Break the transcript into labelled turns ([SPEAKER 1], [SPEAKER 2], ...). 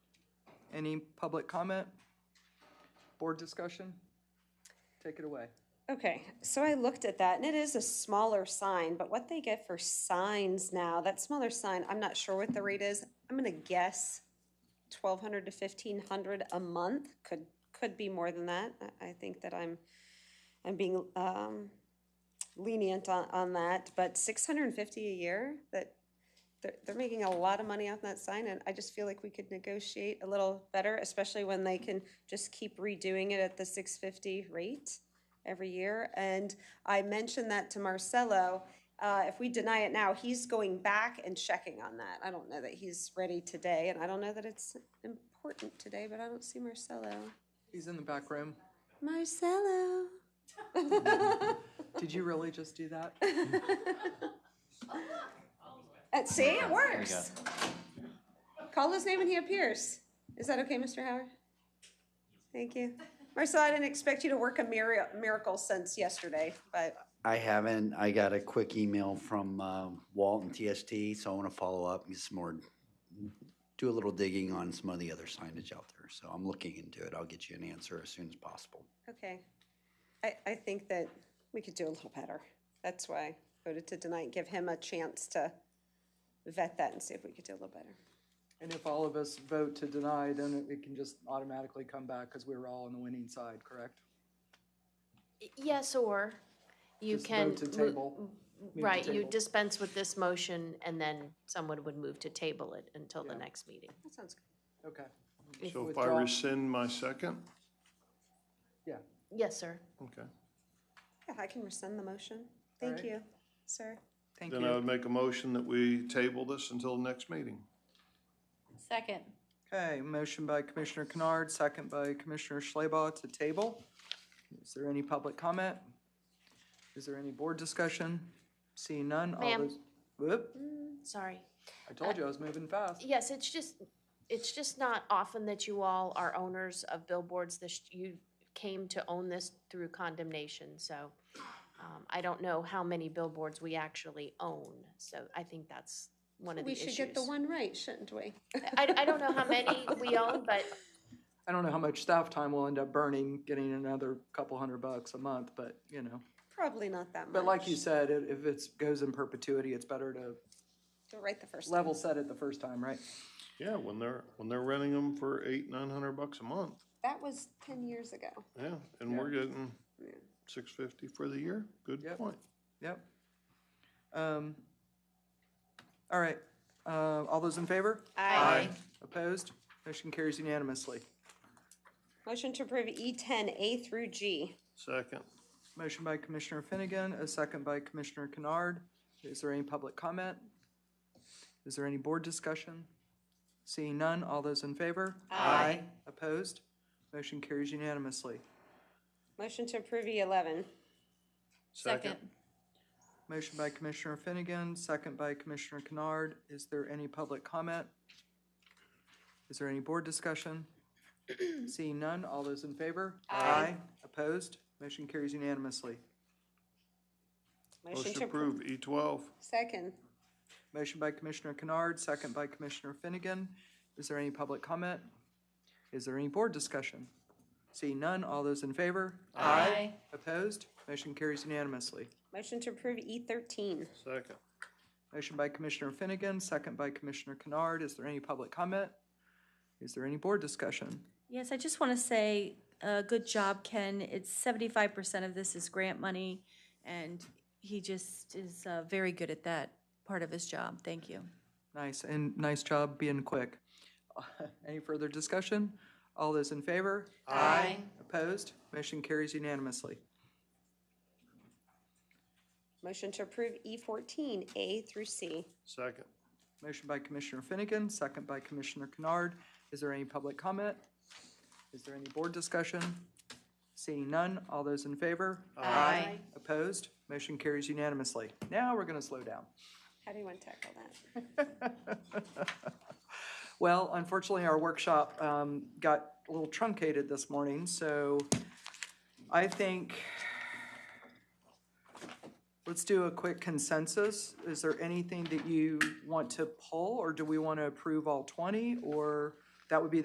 [SPEAKER 1] Any public comment? Board discussion? Take it away.
[SPEAKER 2] Okay, so I looked at that and it is a smaller sign, but what they get for signs now, that smaller sign, I'm not sure what the rate is. I'm gonna guess twelve hundred to fifteen hundred a month, could, could be more than that. I, I think that I'm, I'm being, um, lenient on, on that, but six hundred and fifty a year, that, they're, they're making a lot of money off that sign, and I just feel like we could negotiate a little better, especially when they can just keep redoing it at the six fifty rate every year. And I mentioned that to Marcelo, uh, if we deny it now, he's going back and checking on that. I don't know that he's ready today, and I don't know that it's important today, but I don't see Marcelo.
[SPEAKER 1] He's in the back room.
[SPEAKER 2] Marcelo.
[SPEAKER 1] Did you really just do that?
[SPEAKER 2] Uh, see, it
[SPEAKER 3] There we go.
[SPEAKER 2] works. Call his name and he appears. Is that okay, Mr. Howard? Thank you. Marcel, I didn't expect you to work a mira- miracle since yesterday, but
[SPEAKER 3] I haven't. I got a quick email from uh, Walt and TST, so I want to follow up and get some more, do a little digging on some of the other signage out there. So I'm looking into it. I'll get you an answer as soon as possible.
[SPEAKER 2] okay. I, I think that we could do a little better. That's why I voted to deny and give him a chance to vet that and see if we could do a little better.
[SPEAKER 1] And if all of us vote to deny, then it- it can just automatically come back because we were all on the winning side, correct?
[SPEAKER 4] Yes, or you
[SPEAKER 1] Just
[SPEAKER 4] can.
[SPEAKER 1] Vote to
[SPEAKER 4] mo-
[SPEAKER 1] table. Move to
[SPEAKER 4] Right, you
[SPEAKER 1] table.
[SPEAKER 4] dispense with this motion and then someone would move to table it until the
[SPEAKER 1] Yeah.
[SPEAKER 4] next meeting.
[SPEAKER 2] That sounds good.
[SPEAKER 1] Okay,
[SPEAKER 5] So if I
[SPEAKER 1] Withdraw.
[SPEAKER 5] rescind my second,
[SPEAKER 1] yeah.
[SPEAKER 4] Yes, sir.
[SPEAKER 5] okay.
[SPEAKER 2] Yeah, I can rescind the motion. Thank
[SPEAKER 1] right.
[SPEAKER 2] you, sir.
[SPEAKER 1] Thank
[SPEAKER 5] Then I would
[SPEAKER 1] you.
[SPEAKER 5] make a motion that we table this until the next meeting.
[SPEAKER 6] Second.
[SPEAKER 1] Okay, motion by Commissioner Kennard, second by Commissioner Schleba to table. Is there any public comment? Is there any board discussion? Seeing none, all
[SPEAKER 4] Ma'am.
[SPEAKER 1] those. Whoop,
[SPEAKER 4] Sorry.
[SPEAKER 1] I told you I was moving fast.
[SPEAKER 4] Yes, it's just, it's just not often that you all are owners of billboards. This, you came to own this through condemnation, so um, I don't know how many billboards we actually own, so I think that's one of the
[SPEAKER 2] We
[SPEAKER 4] issues.
[SPEAKER 2] should get the one right, shouldn't we?
[SPEAKER 4] I, I don't know how many we own, but
[SPEAKER 1] I don't know how much staff time we'll end up burning, getting another couple hundred bucks a month, but, you know.
[SPEAKER 2] Probably not that much.
[SPEAKER 1] But like you said, i- if it's, goes in perpetuity, it's better to
[SPEAKER 2] Do it right the first time.
[SPEAKER 1] level set it the first time, right?
[SPEAKER 5] Yeah, when they're, when they're renting them for eight, nine hundred bucks a month,
[SPEAKER 2] That was ten years ago.
[SPEAKER 5] yeah, and we're getting six fifty for the year, good
[SPEAKER 1] Yep.
[SPEAKER 5] point.
[SPEAKER 1] Yep. Um, all right, uh, all those in favor?
[SPEAKER 2] Aye.
[SPEAKER 1] Opposed? Motion carries unanimously.
[SPEAKER 2] Motion to approve E ten A through G.
[SPEAKER 5] Second,
[SPEAKER 1] Motion by Commissioner Finnegan, a second by Commissioner Kennard. Is there any public comment? Is there any board discussion? Seeing none, all those in favor? Aye. Opposed? Motion carries unanimously.
[SPEAKER 2] Motion to approve E eleven.
[SPEAKER 5] second,
[SPEAKER 1] Motion by Commissioner Finnegan, second by Commissioner Kennard. Is there any public comment? Is there any board discussion? Seeing none, all those in favor? Aye. Opposed? Motion carries unanimously.
[SPEAKER 2] Motion
[SPEAKER 5] motion
[SPEAKER 2] to
[SPEAKER 5] to
[SPEAKER 2] approve.
[SPEAKER 5] approve E twelve,
[SPEAKER 2] Second.
[SPEAKER 1] Motion by Commissioner Kennard, second by Commissioner Finnegan. Is there any public comment? Is there any board discussion? Seeing none, all those in favor?
[SPEAKER 6] Aye.
[SPEAKER 1] Opposed? Motion carries unanimously.
[SPEAKER 2] Motion to approve E thirteen.
[SPEAKER 5] second,
[SPEAKER 1] Motion by Commissioner Finnegan, second by Commissioner Kennard. Is there any public comment? Is there any board discussion?
[SPEAKER 6] Yes, I just want to say, uh, good job, Ken. It's seventy-five percent of this is grant money, and he just is, uh, very good at that part of his job. Thank you.
[SPEAKER 1] Nice, and nice job being quick. Any further discussion? All those in favor? Aye. Opposed? Motion carries unanimously.
[SPEAKER 2] Motion to approve E fourteen A through C.
[SPEAKER 5] second,
[SPEAKER 1] Motion by Commissioner Finnegan, second by Commissioner Kennard. Is there any public comment? Is there any board discussion? Seeing none, all those in favor? Aye. Opposed? Motion carries unanimously. Now we're gonna slow down.
[SPEAKER 2] How do you want to tackle that?
[SPEAKER 1] Well, unfortunately, our workshop um, got a little truncated this morning, so I think, let's do a quick consensus. Is there anything that you want to pull, or do we want to approve all 20? Or that would be